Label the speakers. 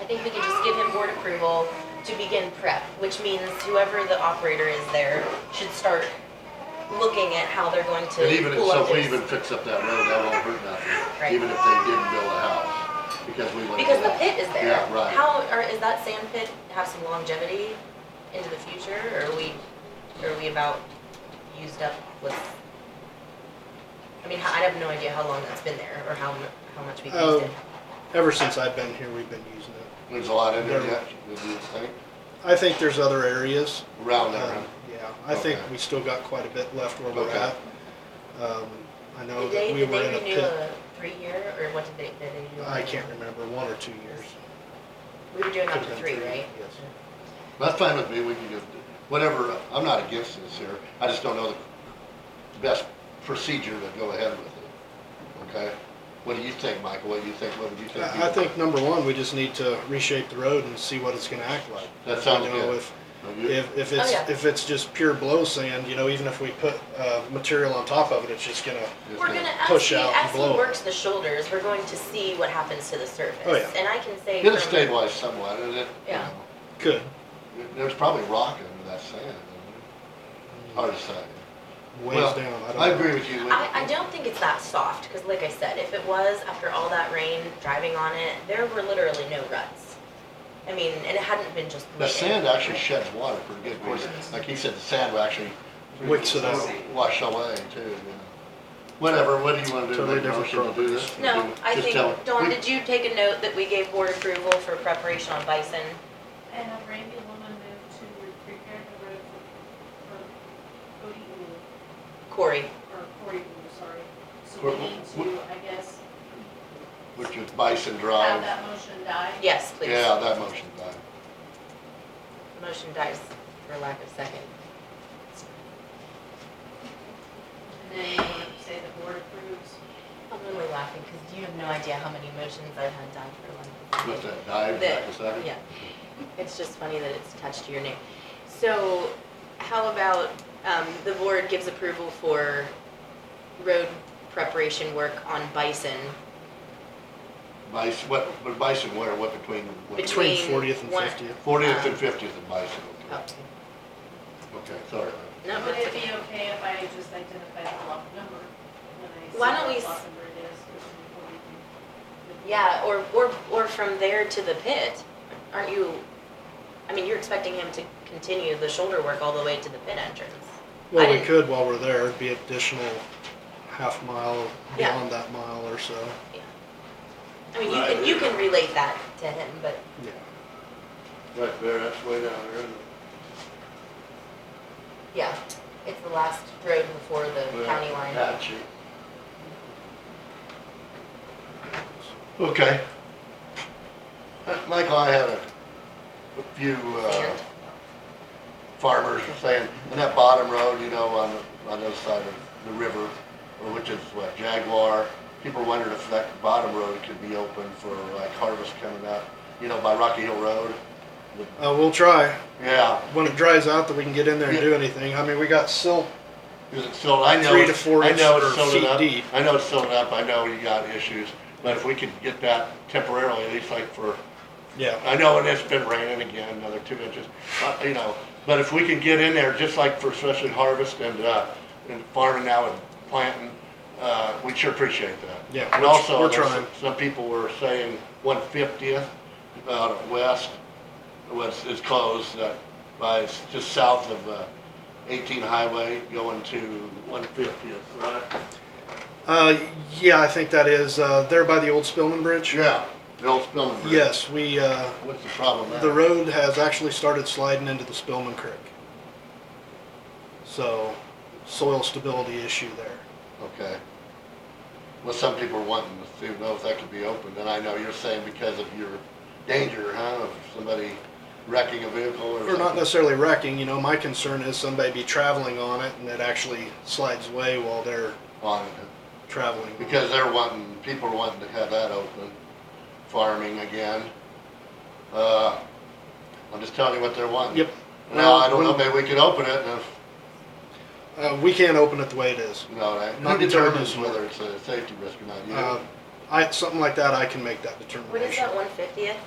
Speaker 1: I think we can just give him board approval to begin prep, which means whoever the operator is there should start looking at how they're going to
Speaker 2: And even if,
Speaker 1: pull
Speaker 2: so
Speaker 1: up
Speaker 2: if we
Speaker 1: this.
Speaker 2: even fix up that road, that won't hurt nothing,
Speaker 1: Right.
Speaker 2: even if they didn't build a house, because we went.
Speaker 1: Because
Speaker 2: to
Speaker 1: the
Speaker 2: that.
Speaker 1: pit is there.
Speaker 2: Yeah, right.
Speaker 1: How, or is that sand pit have some longevity into the future, or are we, are we about used up with? I mean, I have no idea how long that's been there, or how, mu- how much we've used
Speaker 3: Um,
Speaker 1: it.
Speaker 3: ever since I've been here, we've been using it.
Speaker 2: There's a lot in there yet, would you think,
Speaker 3: I think there's other areas.
Speaker 2: around there,
Speaker 3: Um, Yeah, I think
Speaker 2: Oh, Okay.
Speaker 3: we still got quite a bit left where we're
Speaker 2: Okay.
Speaker 3: at. Um, I know
Speaker 1: Did
Speaker 3: that
Speaker 1: they,
Speaker 3: we
Speaker 1: did
Speaker 3: were in
Speaker 1: they
Speaker 3: a
Speaker 1: renew
Speaker 3: pit.
Speaker 1: a three-year, or what did they, did they do?
Speaker 3: I can't remember, one or two years.
Speaker 1: We were doing up
Speaker 3: Could've
Speaker 1: to
Speaker 3: been
Speaker 1: three, right?
Speaker 3: Yes.
Speaker 2: that's fine with me, we can just, whatever, I'm not against this here, I just don't know the best procedure to go ahead with it, okay? What do you think, Michael, what do you think, what would you think?
Speaker 3: I I think number one, we just need to reshape the road and see what it's gonna act like.
Speaker 2: That sounds
Speaker 3: You know,
Speaker 2: good.
Speaker 3: if-
Speaker 2: Now, you-
Speaker 3: If, if it's,
Speaker 1: Oh, yeah.
Speaker 3: if it's just pure blow sand, you know, even if we put, uh, material on top of it, it's just gonna,
Speaker 2: just
Speaker 1: We're
Speaker 2: think-
Speaker 1: gonna, as
Speaker 3: push
Speaker 1: he,
Speaker 3: out and
Speaker 1: as he
Speaker 3: blow it.
Speaker 1: works the shoulders, we're going to see what happens to the surface.
Speaker 3: Oh, yeah.
Speaker 1: And I can say.
Speaker 2: It'll
Speaker 1: from-
Speaker 2: stabilize somewhat, and it, you
Speaker 1: Yeah.
Speaker 2: know,
Speaker 3: could.
Speaker 2: there- there's probably rock under that sand, isn't it? hard to say.
Speaker 3: Ways
Speaker 2: Well,
Speaker 3: down, I don't.
Speaker 2: I agree with you, Lee.
Speaker 1: I, I don't think it's that soft, because like I said, if it was, after all that rain, driving on it, there were literally no ruts. I mean, and it hadn't been just.
Speaker 2: The
Speaker 1: laid in.
Speaker 2: sand actually sheds water pretty good, of course, like he said, the sand will actually.
Speaker 3: Wicks it out.
Speaker 2: Wash away too, you know. Whatever, what do you wanna do,
Speaker 3: Totally
Speaker 2: make a
Speaker 3: different
Speaker 2: motion to do this?
Speaker 1: No, I
Speaker 2: Just
Speaker 1: think,
Speaker 2: tell-
Speaker 1: Dawn,
Speaker 2: we-
Speaker 1: did you take a note that we gave board approval for preparation on bison?
Speaker 4: And a Randy Luma moved to prepare the road for, for Cody Wu,
Speaker 1: Corey,
Speaker 4: or Cory Wu, sorry. So
Speaker 2: Wh- wh-
Speaker 4: we need to, I guess,
Speaker 2: Which is Bison
Speaker 4: have
Speaker 2: Drive,
Speaker 4: that motion die.
Speaker 1: yes, please.
Speaker 2: yeah, that motion, died.
Speaker 1: Motion dies for lack of second.
Speaker 4: And then you want to say the board approves.
Speaker 1: I'm really laughing, because you have no idea how many motions I've had done for one.
Speaker 2: with that dive, back a second.
Speaker 1: Yeah, it's just funny that it's attached to your name. So how about, um, the board gives approval for road preparation work on Bison
Speaker 2: Bison, what, but Bison where, what between? what-
Speaker 1: Between
Speaker 3: Between fortieth and
Speaker 1: one-
Speaker 3: fiftieth.
Speaker 2: Fortieth and fiftieth and Bison,
Speaker 1: Oh,
Speaker 2: okay, sorry.
Speaker 1: no,
Speaker 4: Would
Speaker 1: that's
Speaker 4: it
Speaker 1: okay.
Speaker 4: be okay if I just identify the block number? when I say
Speaker 1: Why don't
Speaker 4: what
Speaker 1: we
Speaker 4: block
Speaker 1: s-
Speaker 4: number it is, so we can-
Speaker 1: Yeah, or, or, or from there to the pit, aren't you, I mean, you're expecting him to continue the shoulder work all the way to the pit entrance?
Speaker 3: Well, we
Speaker 1: I-
Speaker 3: could while we're there, it'd be additional half mile
Speaker 1: Yeah.
Speaker 3: beyond that mile or so,
Speaker 1: I mean, you can, you can relate that to him, but
Speaker 3: yeah.
Speaker 2: Right there, that's way down there, isn't
Speaker 1: yeah, it's the last road before the
Speaker 2: it?
Speaker 1: county line.
Speaker 2: Patchy. Okay. Uh, Michael, I had a, a few, uh,
Speaker 1: Sand.
Speaker 2: farmers were saying, and that bottom road, you know, on, the- on the other side of the river, or which is what, Jaguar, people wondered if that bottom road could be open for like harvest coming up, you know, by Rocky Hill Road.
Speaker 3: Uh, we'll try,
Speaker 2: Yeah,
Speaker 3: when it dries out that we can get in there and
Speaker 2: Yeah.
Speaker 3: do anything, I mean, we got silt,
Speaker 2: Is it filled? I know.
Speaker 3: Three to four
Speaker 2: I know it's
Speaker 3: inch or
Speaker 2: filled
Speaker 3: feet
Speaker 2: up.
Speaker 3: deep.
Speaker 2: I know it's filled up, I know you got issues, but if we could get that temporarily, at least like for,
Speaker 3: yeah.
Speaker 2: I know and it's been raining again, another two inches, but, you know, but if we can get in there, just like for especially harvest and, uh, and farming now and planting, uh, we'd sure appreciate that.
Speaker 3: Yeah,
Speaker 2: And
Speaker 3: we're-
Speaker 2: also,
Speaker 3: we're
Speaker 2: there's
Speaker 3: trying.
Speaker 2: Some people were saying one fiftieth out of west was, is closed, uh, by, it's just south of, uh, eighteen highway going to one fiftieth, right?
Speaker 3: Uh, yeah, I think that is, uh, there by the old Spillman Bridge.
Speaker 2: Yeah, the old Spillman Bridge.
Speaker 3: Yes, we, uh,
Speaker 2: What's the problem there?
Speaker 3: the road has actually started sliding into the Spillman Creek. So, soil stability issue there.
Speaker 2: Okay. Well, some people are wanting to know if that could be opened, and I know you're saying because of your danger, huh, of somebody wrecking a vehicle or
Speaker 3: Or not
Speaker 2: something?
Speaker 3: necessarily wrecking, you know, my concern is somebody be traveling on it and it actually slides away while they're
Speaker 2: On it.
Speaker 3: traveling. on it.
Speaker 2: Because they're wanting, people are wanting to have that open, farming again. Uh, I'm just telling you what they're wanting.
Speaker 3: Yep.
Speaker 2: Now, I don't know,
Speaker 3: Well,
Speaker 2: maybe we could open it, and if,
Speaker 3: Uh, we can't open it the way it is.
Speaker 2: you know, that- who
Speaker 3: Not determined.
Speaker 2: determines whether it's a safety risk or not? You?
Speaker 3: Uh, I, something like that, I can make that determination.
Speaker 1: What is that, one fiftieth?